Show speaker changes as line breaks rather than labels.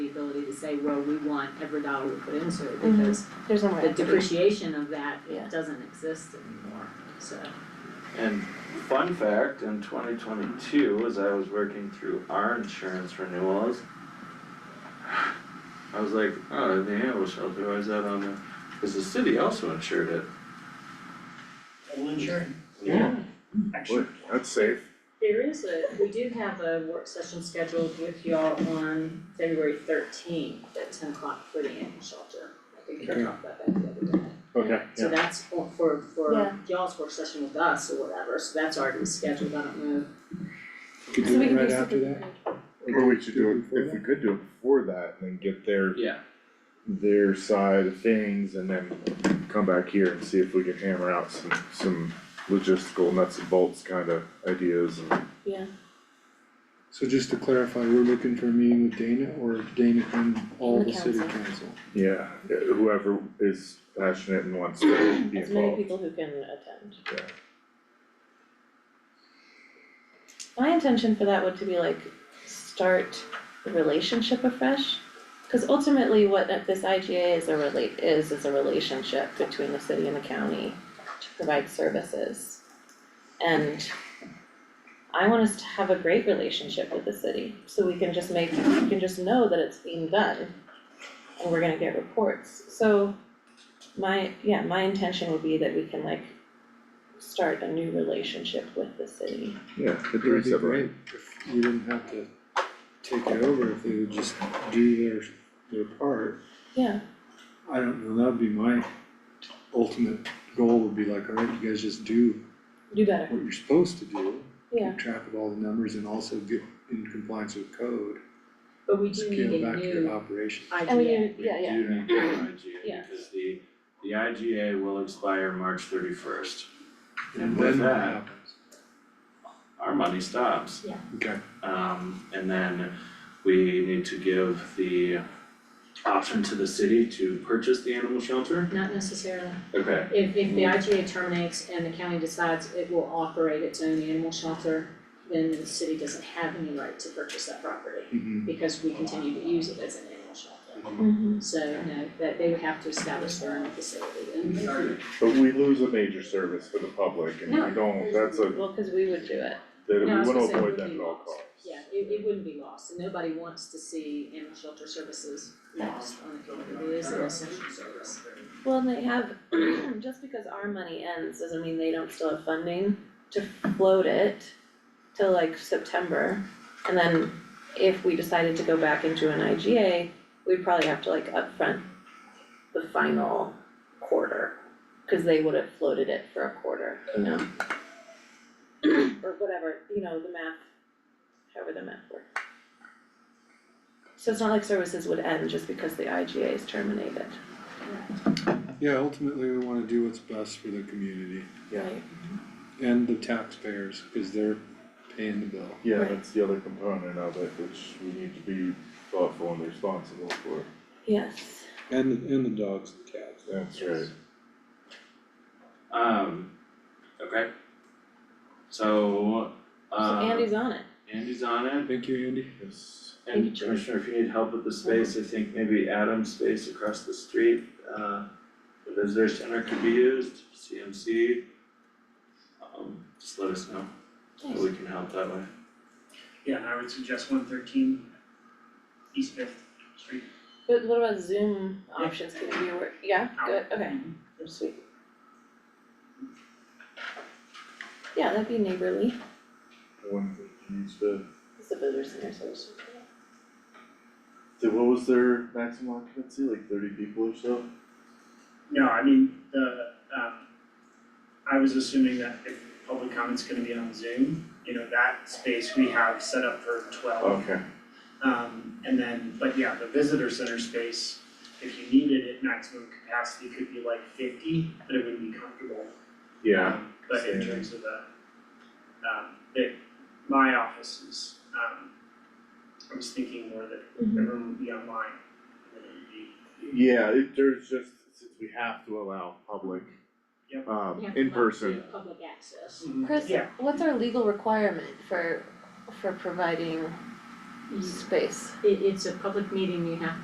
to say, well, we want every dollar we put into it because
There's no
the
way.
depreciation of that
Mm-hmm. Yeah.
doesn't exist anymore, so.
And fun fact, in twenty twenty-two, as I was working through our insurance renewals, I was like, oh, the animal shelter, why is that on there? Cause the city also insured it.
Well, insurance.
Yeah.
Actually,
That's safe.
There is a, we do have a work session scheduled with y'all on February thirteenth at ten o'clock for the animal shelter. I think we
Okay.
talked about that the other day.
Okay,
So that's for for for
Yeah.
y'all's work session with us or whatever, so that's already scheduled, I don't know.
Could
So we can do
Right after
something.
Or we should do it, if we could do it before that and then get their,
Yeah.
their side of things and then come back here and see if we can hammer out some, some logistical nuts and bolts kind of ideas and.
Yeah,
So just to clarify, we're looking for a meeting with Dana or Dana and all
And the
the city
council.
council?
Yeah, whoever is passionate and wants to be
as many
involved.
people who can attend.
Yeah.
My intention for that would to be like, start the relationship afresh. Cause ultimately what that- this IGA is a relate, is, is a relationship between the city and the county to provide services. And I want us to have a great relationship with the city, so we can just make, we can just know that it's being done. And we're gonna get reports, so my, yeah, my intention would be that we can like start a new relationship with the city.
Yeah, could
It
do
would be
separate.
great if we didn't have to take it over, if they would just do their, their part.
Yeah,
I don't know, that'd be my ultimate goal would be like, alright, you guys just do
do better,
what you're supposed to do.
yeah,
Keep track of all the numbers and also get in compliance with code,
But we do need
scale
a
back your
new
operations.
and we,
idea.
do- yeah, yeah,
We do need to do an IGA
Yeah.
because the, the IGA will expire March thirty-first. And
then
with
what
that-
happens?
Our money stops.
Okay,
Um, and then we need to give the option to the city to purchase the animal shelter.
Not necessarily,
Okay.
if if the IGA terminates and the county decides it will operate its own animal shelter, then the city doesn't have any right to purchase that property
mhm.
because we continue to use it as an animal shelter.
mhm,
So, no, that they would have to establish their own facility and
But we lose a major service for the public and
No.
we don't, that's a,
well, cause we would do it,
that we
No, I was
wanna
gonna say it
avoid
would
that
be
at all
lost.
costs.
Yeah, it it wouldn't be lost, and nobody wants to see animal shelter services lost on the community, it is an essential service.
well, and they have, just because our money ends, doesn't mean they don't still have funding to float it till like September, and then if we decided to go back into an IGA, we'd probably have to like upfront the final quarter, cause they would have floated it for a quarter, you know? Or whatever, you know, the math, however the math works. So it's not like services would end just because the IGA is terminated.
Yeah, ultimately, we wanna do what's best for the community.
Yeah.
Right.
And the taxpayers, cause they're paying the bill.
Yeah,
Right.
that's the other component of it, which we need to be thoughtful and responsible for.
Yes,
And, and the dogs and cats.
That's
Yes.
right.
Um, okay. So,
so
uh.
Andy's on it,
Andy's on it,
Thank you, Andy.
Yes.
Thank you,
and
Jim.
Commissioner, if you need help with the space, I think maybe Adam's space across the street, uh, the visitor center could be used, CMC. Um, just let us know, so
nice,
we can help that way.
yeah, and I would suggest one thirteen East Fifth Street.
but what about Zoom options, can we work, yeah, good, okay, sweet. Yeah, that'd be neighborly,
The one that used the,
it's the visitor center, so it's-
the- what was their maximum occupancy, like thirty people or so?
No, I mean, the, um, I was assuming that if public comment's gonna be on Zoom, you know, that space we have set up for twelve.
Okay,
Um, and then, but yeah, the visitor center space, if you needed it, maximum capacity could be like fifty, but it would be comfortable.
yeah,
Um, But in
same.
terms of the, um, the, my office is, um, I was thinking more that
Mhm.
everyone would be online, and then it'd be
yeah, it, there's just, since we have to allow public,
Yep.
um,
We have to
in
allow
person,
Public access.
Chris,
Yeah.
what's our legal requirement for, for providing space?
It it's a public meeting, you have